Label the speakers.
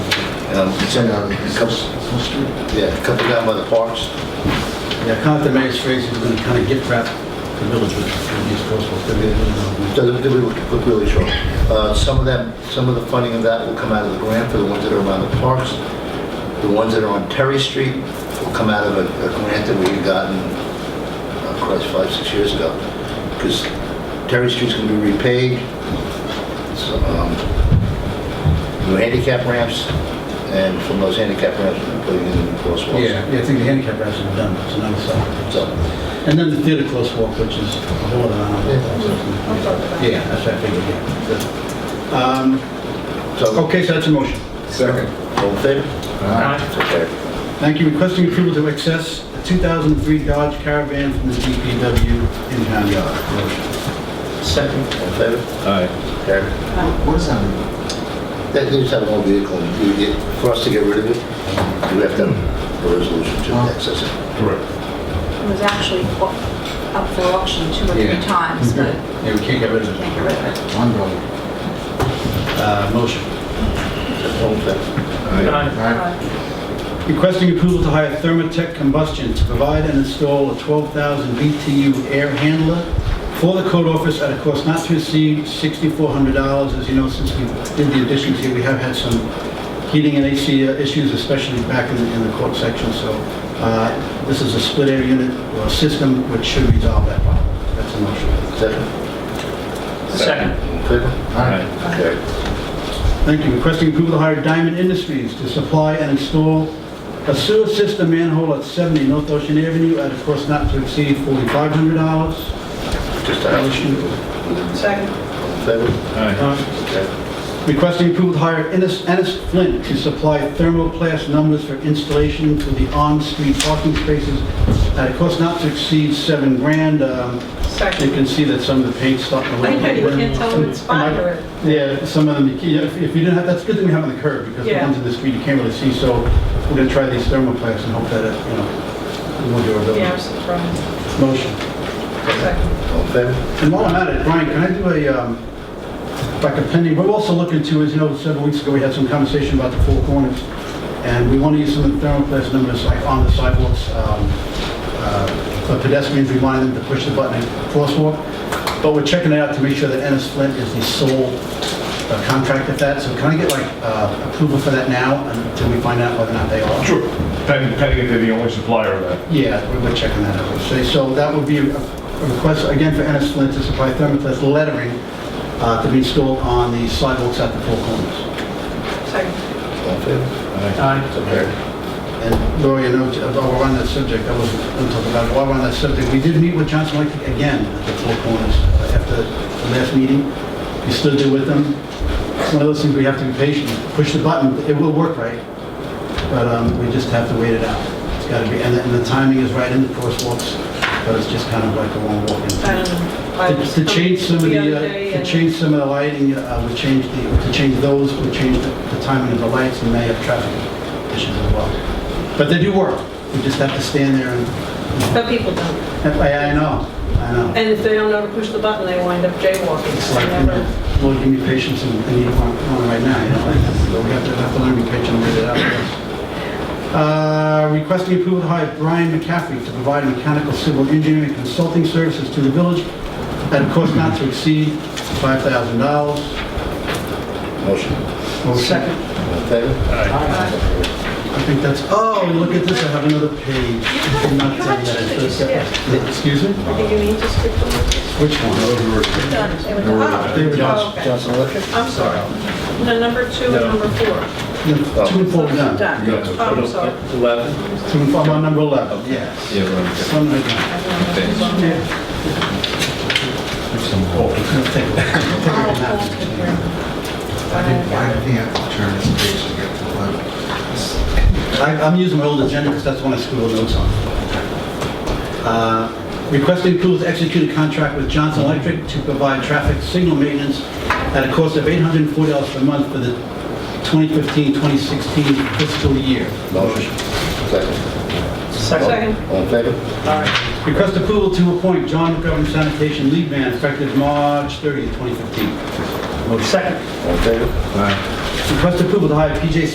Speaker 1: Um, It's in um, a couple, yeah, a couple down by the parks.
Speaker 2: Yeah, Compton Main Street is going to kind of gift wrap the village with with these crosswalks. They're gonna do it on-
Speaker 1: So let me- let me look look really short. Uh, Some of them, some of the funding of that will come out of the grant for the ones that are around the parks. The ones that are on Terry Street will come out of a a grant that we've gotten, uh, Christ, five, six years ago. Because Terry Street's going to be repaid. So, um, New handicap ramps, and from those handicap ramps, we're putting in new crosswalks.
Speaker 2: Yeah, yeah, I think the handicap ramps are done, it's another side.
Speaker 1: So,
Speaker 2: And then the theater crosswalk, which is a whole other
Speaker 3: Yeah.
Speaker 2: island. Yeah, that's what I figured, yeah. Good. Um,
Speaker 1: so,
Speaker 2: Okay, so that's a motion.
Speaker 4: Second.
Speaker 1: all in favor?
Speaker 4: Aye.
Speaker 1: Okay.
Speaker 2: Thank you, requesting approval to access a 2003 Dodge Caravan from the DPW in town yard. Motion.
Speaker 4: Second.
Speaker 1: All in favor?
Speaker 4: Aye.
Speaker 1: Okay.
Speaker 4: What is that?
Speaker 1: That they just have an old vehicle, and you get, for us to get rid of it, we have to have a resolution to access it.
Speaker 4: Correct.
Speaker 3: It was actually au- up for auction two or three
Speaker 2: Yeah.
Speaker 3: times, but
Speaker 2: Yeah, we can't get rid of it.
Speaker 3: can't get rid of it.
Speaker 4: One dollar.
Speaker 2: Uh, Motion.
Speaker 1: All in favor?
Speaker 3: Right.
Speaker 2: Requesting approval to hire Thermatec Combustion to provide and install a 12,000 BTU air handler for the code office at a cost not to exceed $6,400. As you know, since we did the additions here, we have had some heating and AC issues, especially back in the- in the court section. So uh, this is a split air unit or system which should resolve that problem. That's a motion.
Speaker 1: Second?
Speaker 4: Second.
Speaker 1: All in favor?
Speaker 4: Aye.
Speaker 1: Okay.
Speaker 2: Thank you. Requesting approval to hire Diamond Industries to supply and install a sewer system manhole at 70 North Ocean Avenue at a cost not to exceed $4,500.
Speaker 1: Just a house.
Speaker 3: Second.
Speaker 1: All in favor?
Speaker 4: Aye.
Speaker 1: Okay.
Speaker 2: Uh, Requesting approval to hire Ennis Ennis Flint to supply thermoplast numbers for installation to the on-street parking spaces at a cost not to exceed seven grand. Um, You
Speaker 3: Second.
Speaker 2: can see that some of the paint's starting to...
Speaker 3: I know, you can't tell who it's by or-
Speaker 2: Yeah, some of them, you can't- if if you didn't have, that's a good thing we have on the curb, because the
Speaker 3: Yeah.
Speaker 2: ones in the street you can't really see, so we're gonna try these thermoplasts and hope that, it, you know, we'll do our
Speaker 3: Yeah, I
Speaker 2: best.
Speaker 3: was surprised.
Speaker 2: Motion.
Speaker 3: Second.
Speaker 1: All in favor?
Speaker 2: And while I'm at it, Brian, can I do a, um, like a pending, we're also looking to, as you know, several weeks ago, we had some conversation about the four corners, and we want to use some of the thermoplast numbers like on the sidewalks, um, uh, for pedestrians, we wanted them to push the button at crosswalk, but we're checking it out to make sure that Ennis Flint is the sole uh, contractor for that, so can I get like uh, approval for that now until we find out whether or not they are?
Speaker 5: Sure, depending depending if they're the only supplier of that.
Speaker 2: Yeah, we- we're checking that out. So- So that would be a a request, again, for Ennis Flint to supply thermoplast lettering uh, to be installed on the sidewalks at the four corners.
Speaker 3: Second.
Speaker 1: All in favor?
Speaker 4: Aye.
Speaker 1: Okay.
Speaker 2: And Lori, you know, uh, while we're on that subject, I wasn't going to talk about it, while we're on that subject, we did meet with Johnson Electric again at the four corners uh, after the last meeting. We stood there with them. It's one of those things we have to be patient, push the button, it will work right, but um, we just have to wait it out. It's got to be, and the- and the timing is right in the crosswalks, but it's just kind of like a long walk in.
Speaker 3: Um, I was-
Speaker 2: To to change some of
Speaker 3: other
Speaker 2: the, uh,
Speaker 3: day
Speaker 2: to
Speaker 3: and-
Speaker 2: change some of the lighting, uh, would change the, to change those, would change the the timing of the lights and may have traffic issues as well. But they do work. We just have to stand there and,
Speaker 3: But people don't.
Speaker 2: I I know, I know.
Speaker 3: And if they don't know to push the button, they wind up jaywalking.
Speaker 2: It's
Speaker 3: so
Speaker 2: like, you
Speaker 3: never-
Speaker 2: know, Lord, give me patience and I need one one right now, you know? like, We have to, have to learn to be patient and wait it out. Uh, Requesting approval to hire Brian McCaffrey to provide mechanical civil engineering consulting services to the village at a cost not to exceed $5,000.
Speaker 1: Motion.
Speaker 2: Second.
Speaker 1: All in favor?
Speaker 2: I think that's, oh, and look at this, I have another page. I did not tell you that. It's just- Excuse me?
Speaker 3: I think you need to stick to it.
Speaker 2: Which one?
Speaker 3: Done. They were- oh,
Speaker 2: They were done.
Speaker 3: oh, okay.
Speaker 1: Johnson Electric?
Speaker 3: I'm sorry. No, number two and number four.
Speaker 2: No, Two and four, are done.
Speaker 3: Done. Oh, I'm sorry.
Speaker 4: Eleven.
Speaker 2: Two and four, I'm on number 11, yes.
Speaker 4: Yeah, we're on.
Speaker 2: This one right now.
Speaker 3: Oh,
Speaker 2: Take a- take a nap.
Speaker 3: okay, here.
Speaker 6: Why do they have to turn this page to get to the left?
Speaker 2: I- I'm using my old agenda because that's the one I scribbled notes on. Uh, Requesting approval to execute a contract with Johnson Electric to provide traffic signal maintenance at a cost of $840 per month for the 2015-2016 fiscal year.
Speaker 1: Motion. Second.
Speaker 3: Second.
Speaker 1: All in favor?
Speaker 2: Request approval to appoint John McGovern sanitation lead man effective March 30th, 2015.
Speaker 4: Second.
Speaker 1: All in favor?
Speaker 2: Request approval to hire PJ